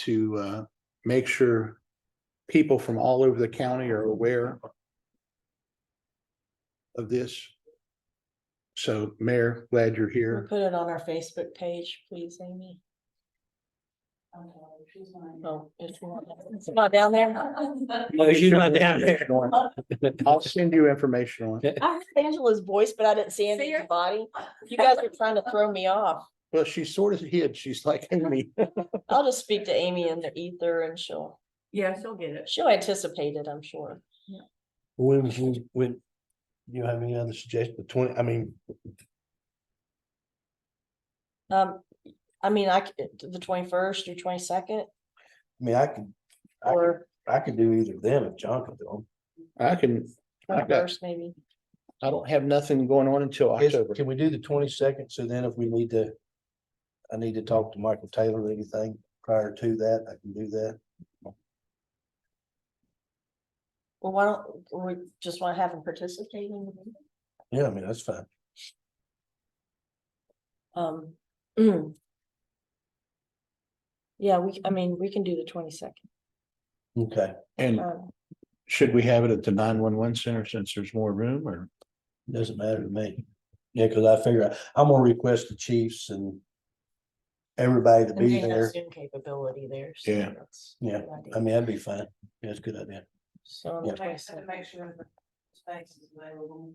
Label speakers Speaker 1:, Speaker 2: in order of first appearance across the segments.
Speaker 1: to uh make sure people from all over the county are aware of this. So Mayor, glad you're
Speaker 2: We'll
Speaker 1: here.
Speaker 2: Put it on our Facebook page, please, Amy. Oh, it's not, it's not down there.
Speaker 3: No, she's not down there.
Speaker 1: I'll send you information on it.
Speaker 2: I heard Angela's voice, but I didn't see Angela's body. You guys are trying to throw me off.
Speaker 1: Well, she's sort of hid. She's like, Amy.
Speaker 2: I'll just speak to Amy in the ether and she'll,
Speaker 4: Yeah, she'll get it.
Speaker 2: she'll anticipate it, I'm sure.
Speaker 3: When, when- when, you have any other suggestion, twenty, I mean,
Speaker 2: Um, I mean, I, c- the twenty-first or twenty-second,
Speaker 3: I mean, I could, I could,
Speaker 2: or
Speaker 3: I could do either of them if John could do
Speaker 1: I can, I got-
Speaker 2: twenty-first maybe.
Speaker 1: I don't have nothing going on until
Speaker 3: them.
Speaker 1: October.
Speaker 3: Can we do the twenty-second? So then if we need to, I need to talk to Michael Taylor or anything prior to that, I can do that.
Speaker 2: Well, why don't, we just want to have them participate in the meeting?
Speaker 3: Yeah, I mean, that's fine.
Speaker 2: Um. mm. Yeah, we, I mean, we can do the Um, twenty second.
Speaker 3: Okay.
Speaker 1: And should we have it at the nine one one center since there's more room or?
Speaker 3: Doesn't matter to me. Yeah, cause I figure I- I'm gonna request the chiefs and everybody to be there.
Speaker 2: Zoom capability there.
Speaker 1: so Yeah.
Speaker 3: Yeah, I mean, that'd be fine. Yeah, that's a good idea.
Speaker 2: So on
Speaker 3: yeah.
Speaker 2: the twenty second,
Speaker 4: Make sure the space is available.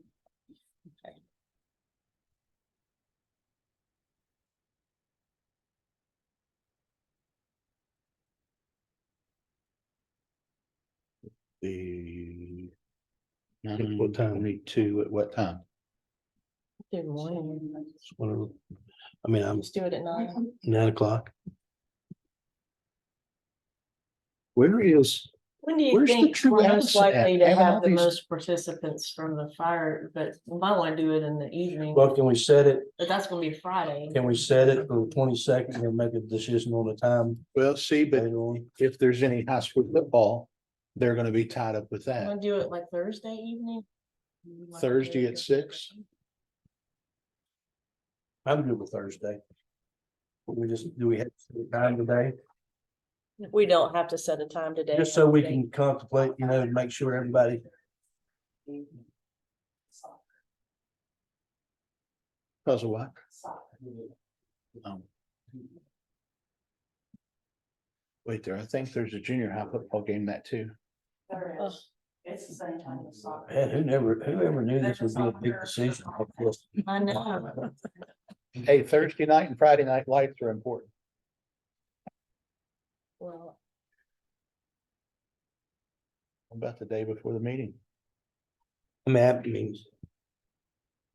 Speaker 1: The.
Speaker 3: What time?
Speaker 1: Twenty-two, at what time?
Speaker 2: do morning,
Speaker 3: Whatever. I mean, I'm
Speaker 2: let's do it at nine.
Speaker 3: nine o'clock.
Speaker 1: Where is,
Speaker 2: When do you
Speaker 1: Where's the
Speaker 2: think
Speaker 1: true
Speaker 2: we're
Speaker 1: hours
Speaker 2: most
Speaker 1: at?
Speaker 2: likely to
Speaker 1: Having all
Speaker 2: have the
Speaker 1: these-
Speaker 2: most participants from the fire, but we might want to do it in the evening,
Speaker 3: Well, can we set it,
Speaker 2: but that's gonna be Friday.
Speaker 3: can we set it for the twenty-second and make a decision on the time
Speaker 1: well, see, but
Speaker 3: later on?
Speaker 1: if there's any high school football, they're gonna be tied up with that.
Speaker 2: Want to do it like Thursday evening?
Speaker 1: Thursday at six?
Speaker 3: I'm good with Thursday. But We just, do we have to set a time today?
Speaker 2: We don't have to set a time today.
Speaker 3: Just so we
Speaker 2: Okay.
Speaker 3: can contemplate, you know, and make sure everybody,
Speaker 1: Cause of what? Um, Wait there, I think there's a junior high football game that too.
Speaker 4: There is. It's the same time as
Speaker 3: man,
Speaker 4: soccer.
Speaker 3: who never, whoever knew this would be a big decision. like this?
Speaker 2: I know.
Speaker 3: Mm-hmm.
Speaker 1: Hey, Thursday night and Friday night lights are important.
Speaker 2: Well,
Speaker 1: About the day before the meeting.
Speaker 3: I mean, I mean,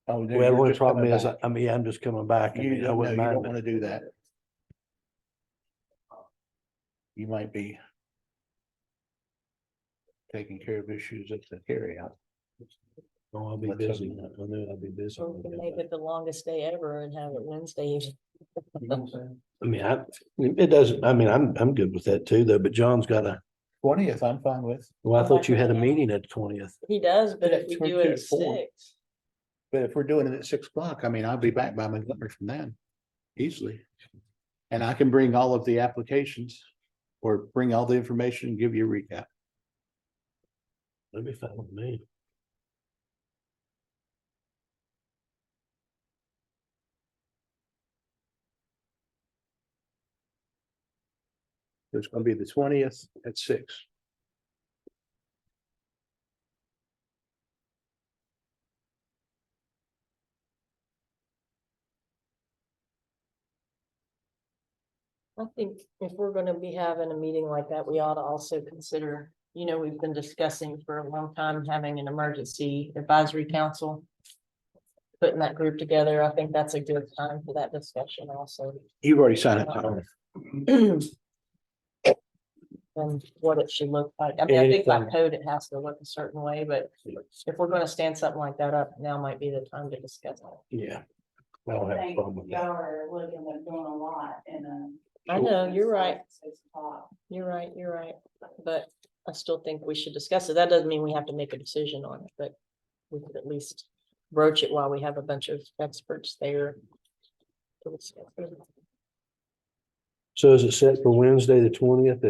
Speaker 1: Oh, dude,
Speaker 3: well, the
Speaker 1: you're
Speaker 3: only
Speaker 1: just coming
Speaker 3: problem is,
Speaker 1: back.
Speaker 3: I I mean, I'm just coming back. I
Speaker 1: You
Speaker 3: mean,
Speaker 1: don't,
Speaker 3: I
Speaker 1: no, you
Speaker 3: wouldn't
Speaker 1: don't
Speaker 3: mind,
Speaker 1: wanna do that. You might be. Taking care of issues at the carryout.
Speaker 3: but- Oh, I'll be
Speaker 1: Let's hope
Speaker 3: busy.
Speaker 1: not.
Speaker 3: I know I'll be busy.
Speaker 2: we can make Oh, it the longest day ever and have it Wednesday evening.
Speaker 3: You know what I'm saying? I mean, I, it doesn't, I mean, I'm, I'm good with that too, though, but John's got a,
Speaker 1: Twentieth, I'm fine with,
Speaker 3: well, I
Speaker 2: Oh,
Speaker 3: thought you
Speaker 2: I
Speaker 3: had a
Speaker 2: forgot.
Speaker 3: meeting at twentieth.
Speaker 2: He does, but
Speaker 1: Yeah,
Speaker 2: if we
Speaker 1: twenty
Speaker 2: do it at
Speaker 1: to four.
Speaker 2: six,
Speaker 1: but if we're doing it at six o'clock, I mean, I'll be back by Montgomery from then, easily. And I can bring all of the applications or bring all the information, and give you a recap.
Speaker 3: That'd be fine with me.
Speaker 1: It's gonna be the twentieth at six.
Speaker 2: I think if we're gonna be having a meeting like that, we ought to also consider, you know, we've been discussing for a long time, having an emergency advisory council. Putting that group together, I think that's a good time for that discussion also.
Speaker 1: You've already signed up.
Speaker 3: Oh,
Speaker 1: Tyler.
Speaker 2: And what it should look like. I mean, I think by
Speaker 3: Anything.
Speaker 2: code, it has to look a certain way, but if we're gonna stand something like that up, now might be the time to discuss it.
Speaker 3: Yeah. I don't have a
Speaker 4: Thank
Speaker 3: problem
Speaker 4: you
Speaker 3: with that.
Speaker 4: are looking at doing a lot and um.
Speaker 2: I know, you're right.
Speaker 4: Six o'clock.
Speaker 2: You're right, you're right, but I still think we should discuss it. That doesn't mean we have to make a decision on it, but we could at least broach it while we have a bunch of experts there. to discuss it.
Speaker 3: So is it set for Wednesday, the twentieth